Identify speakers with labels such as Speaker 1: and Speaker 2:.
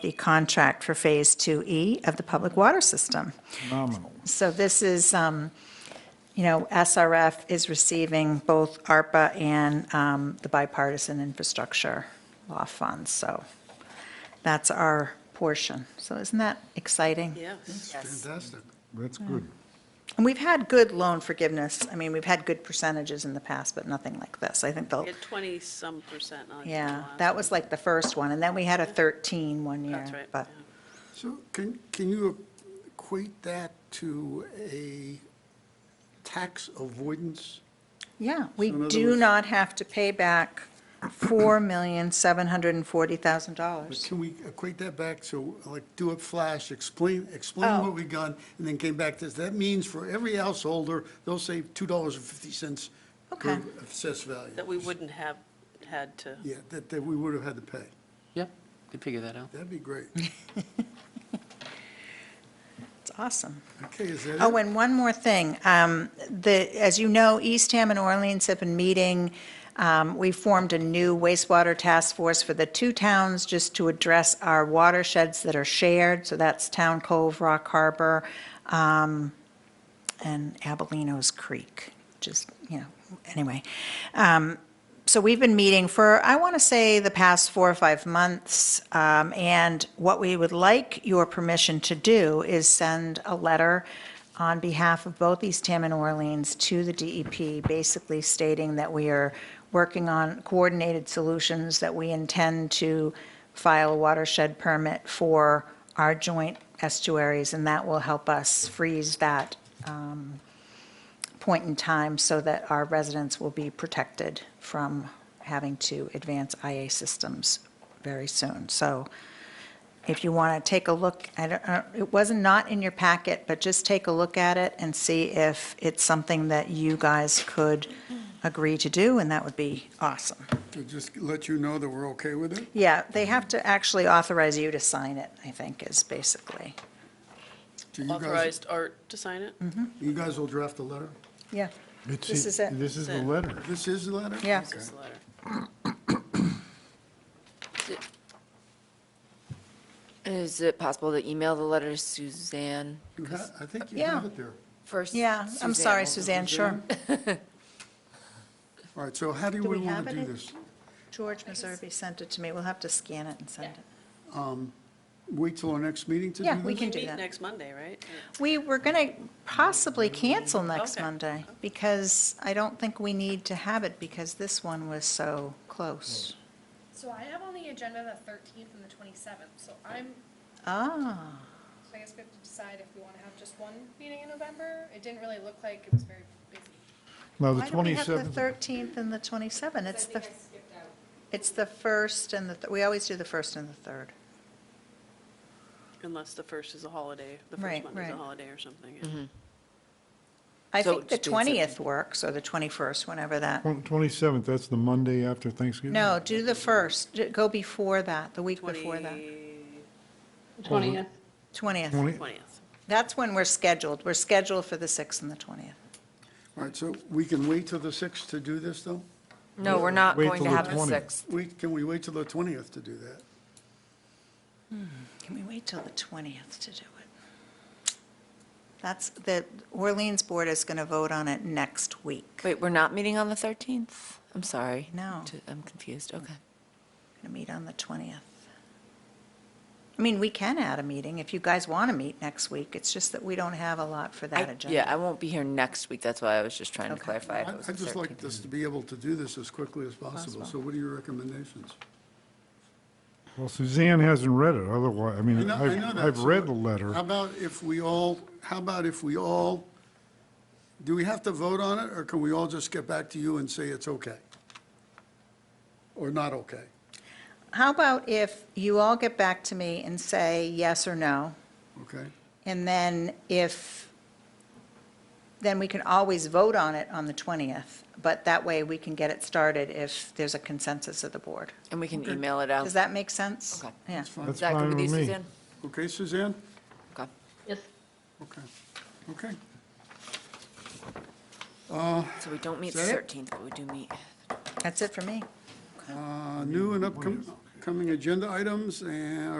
Speaker 1: the contract for Phase 2E of the public water system.
Speaker 2: Phenomenal.
Speaker 1: So this is, um, you know, SRF is receiving both ARPA and um, the bipartisan infrastructure law funds, so that's our portion. So isn't that exciting?
Speaker 3: Yes.
Speaker 2: Fantastic. That's good.
Speaker 1: And we've had good loan forgiveness. I mean, we've had good percentages in the past, but nothing like this. I think they'll,
Speaker 3: At 20-some percent on.
Speaker 1: yeah,
Speaker 3: the
Speaker 1: that
Speaker 3: last
Speaker 1: was like the first one, and then we had a 13 one
Speaker 3: one.
Speaker 1: year.
Speaker 3: That's right.
Speaker 1: But
Speaker 3: yeah.
Speaker 4: So can, can you equate that to a tax avoidance?
Speaker 1: Yeah, we
Speaker 4: in other
Speaker 1: do
Speaker 4: words-
Speaker 1: not have to pay back
Speaker 4: But
Speaker 1: $4,740,000.
Speaker 4: can we equate that back to, like, do it flash, explain, explain
Speaker 1: Oh.
Speaker 4: what we got, and then came back to, this? that means for every householder, they'll save two dollars and fifty cents per
Speaker 1: Okay.
Speaker 4: assessed value.
Speaker 3: That we wouldn't have had to.
Speaker 4: Yeah, that, that we would have had to pay.
Speaker 5: Yep, could figure that out.
Speaker 4: That'd be great.
Speaker 1: It's awesome.
Speaker 4: Okay, is that it?
Speaker 1: Oh, and one more thing. Um, The, as you know, Eastham and Orleans have been meeting. Um, We formed a new wastewater task force for the two towns just to address our watersheds that are shared. So that's Town Cove, Rock Harbor, um, and Abelinos Creek, just, you know, anyway. Um, So we've been meeting for, I want to say, the past four or five months, um, and what we would like your permission to do is send a letter on behalf of both East Eastham and Orleans to the DEP, basically stating that we are working on coordinated solutions, that we intend to file a watershed permit for our joint estuaries, and that will help us freeze that um, point in time so that our residents will be protected from having to advance IA systems very soon. So if you want to take a look, I don't, I don't- it wasn't not in your packet, but just take a look at it and see if it's something that you guys could agree to do, and that would be awesome.
Speaker 4: To just let you know that we're okay with it?
Speaker 1: Yeah, they have to actually authorize you to sign it, I think, is basically.
Speaker 4: Do you guys-
Speaker 3: Authorized Art to sign it?
Speaker 1: Mm-hmm.
Speaker 4: You guys will draft a letter?
Speaker 1: Yeah.
Speaker 2: It's
Speaker 1: This
Speaker 2: the-
Speaker 1: is it.
Speaker 2: This is the
Speaker 3: That's it.
Speaker 2: letter.
Speaker 4: This is the letter?
Speaker 1: Yeah.
Speaker 3: This is the letter.
Speaker 6: Is it possible to email the letter to Suzanne
Speaker 4: You ha- I think you have
Speaker 1: Yeah.
Speaker 4: it there.
Speaker 6: first?
Speaker 1: Yeah, I'm sorry,
Speaker 6: Suzanne.
Speaker 1: Suzanne, sure.
Speaker 4: All right, so how do
Speaker 1: Do
Speaker 4: we
Speaker 1: we
Speaker 4: want
Speaker 1: have
Speaker 4: to
Speaker 1: it
Speaker 4: do
Speaker 1: in-
Speaker 4: this?
Speaker 1: George Meserve sent it to me. We'll have to scan it and send it.
Speaker 4: Um, Wait till our next meeting to do
Speaker 1: Yeah,
Speaker 4: this?
Speaker 1: we can do
Speaker 3: Meet
Speaker 1: that.
Speaker 3: next Monday, right?
Speaker 1: We were going to possibly cancel next
Speaker 3: Okay.
Speaker 1: Monday because I don't think we need to have it because this one was so close.
Speaker 7: So I have on the agenda the thirteenth and the twenty-seventh, so I'm,
Speaker 1: Ah,
Speaker 7: so I guess we have to decide if we wanna have just one meeting in November. It didn't really look like it was very busy.
Speaker 2: Now, Oh, the
Speaker 1: why do we have the
Speaker 2: 27th,
Speaker 1: 13th and the 27th? It's the, it's the first and the, th- we always do the first and the third.
Speaker 3: Unless the first is a holiday, the
Speaker 1: Right,
Speaker 3: first Monday's
Speaker 1: right. Mm-hmm.
Speaker 3: a holiday or something. yeah.
Speaker 1: I
Speaker 6: So
Speaker 1: think the
Speaker 6: it's been sent-
Speaker 1: 20th works or the 21st, whenever that.
Speaker 2: twen- 27th, that's the Monday after Thanksgiving?
Speaker 1: No, do the first, D- go before that, the week before that,
Speaker 3: 20
Speaker 2: 20th.
Speaker 1: 20th.
Speaker 2: 20th?
Speaker 3: 20th.
Speaker 1: That's when we're scheduled. We're scheduled for the 6th and the 20th.
Speaker 4: All right, so we can wait till the 6th to do this, though?
Speaker 6: No, we're not
Speaker 2: Wait
Speaker 6: going
Speaker 2: till
Speaker 6: to
Speaker 2: the
Speaker 6: have the
Speaker 2: 20th.
Speaker 6: sixth.
Speaker 4: Wait, can we wait till the 20th to do that?
Speaker 1: Can we wait till the 20th to do it? That's, the Orleans Board is going to vote on it next week. We're
Speaker 6: Wait, we're not meeting on the 13th? I'm sorry.
Speaker 1: No.
Speaker 6: T- I'm confused, okay.
Speaker 1: going to meet on the 20th. I mean, we can add a meeting if you guys want to meet next week. It's just that we don't have a lot for that
Speaker 6: I-
Speaker 1: agenda.
Speaker 6: Yeah, I won't be here next week, that's why I was just trying to
Speaker 1: Okay.
Speaker 6: clarify. if it
Speaker 4: I-
Speaker 6: was
Speaker 4: I'd
Speaker 6: the
Speaker 4: just like
Speaker 6: 13th.
Speaker 4: us to be able to do this as quickly as possible, so what are your recommendations?
Speaker 2: Well, Suzanne hasn't read it, otherwise, I
Speaker 4: I
Speaker 2: mean,
Speaker 4: know- I know
Speaker 2: I've
Speaker 4: that,
Speaker 2: I've
Speaker 4: so
Speaker 2: read the letter.
Speaker 4: How about if we all, how about if we all, do we have to vote on it, or can we all just get back to you and say it's okay? Or not okay?
Speaker 1: How about if you all get back to me and say yes or no?
Speaker 4: Okay?
Speaker 1: And then if, then we can always vote on it on the 20th, but that way we can get it started if there's a consensus of the board.
Speaker 6: And we can email it out.
Speaker 1: Does that make sense?
Speaker 6: Okay.
Speaker 1: Yeah.
Speaker 6: Is
Speaker 2: That's
Speaker 6: that
Speaker 2: fine
Speaker 6: good with you,
Speaker 2: with me.
Speaker 6: Suzanne?
Speaker 4: Okay, Suzanne?
Speaker 6: Okay.
Speaker 4: Okay, okay.
Speaker 6: So we don't meet the
Speaker 4: Is that it?
Speaker 6: 13th, but we do meet.
Speaker 1: That's it for me.
Speaker 4: Uh, New and upcoming agenda items, and